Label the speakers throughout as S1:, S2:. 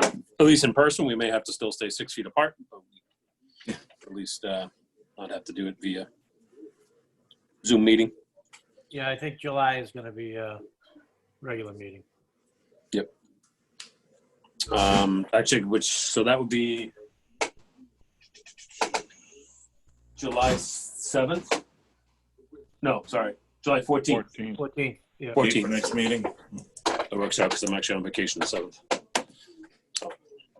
S1: at least in person, we may have to still stay six feet apart. but we- At least uh, not have to do it via Zoom meeting.
S2: Yeah, I think July is going to be a regular meeting.
S1: Um, actually, which, so that would be July 7th? No, sorry, July 14th.
S3: 14.
S2: 14, yeah.
S1: Four-
S3: For next meeting.
S1: That works out because I'm actually on vacation the 7th. Oh.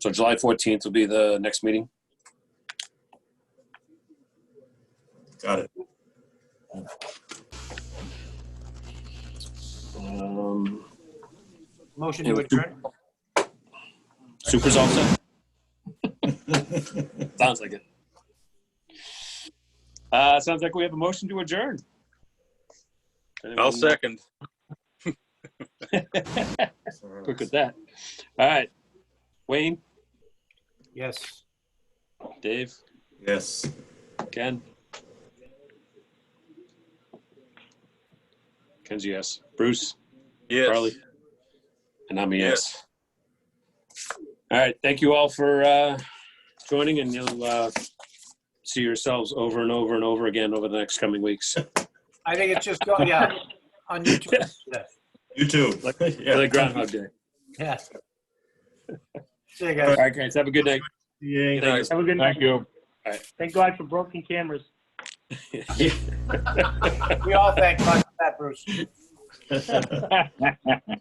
S1: So July 14th will be the next meeting.
S3: Got it.
S1: Um,
S2: Motion to adjourn?
S1: Super's all set? Sounds like it. Uh, sounds like we have a motion to adjourn.
S4: I'll second.
S1: Quick at that. All right. Wayne,
S2: Yes.
S1: Dave,
S3: Yes.
S1: Ken. Ken's a yes. Bruce,
S4: Yes.
S1: Charlie. And I'm a yes. All right. Thank you all for uh, joining and you'll uh, see yourselves over and over and over again over the next coming weeks.
S2: I think it's just, go- yeah, on YouTube. Yeah.
S3: You too. Yeah.
S1: Like Groundhog Day.
S2: Yeah. See you
S1: All
S2: guys.
S1: right, guys. Have a good night.
S4: Good night.
S5: Have a good night.
S3: Thank you.
S5: Thank God for broken cameras.
S2: We all thank Mike for that, Bruce.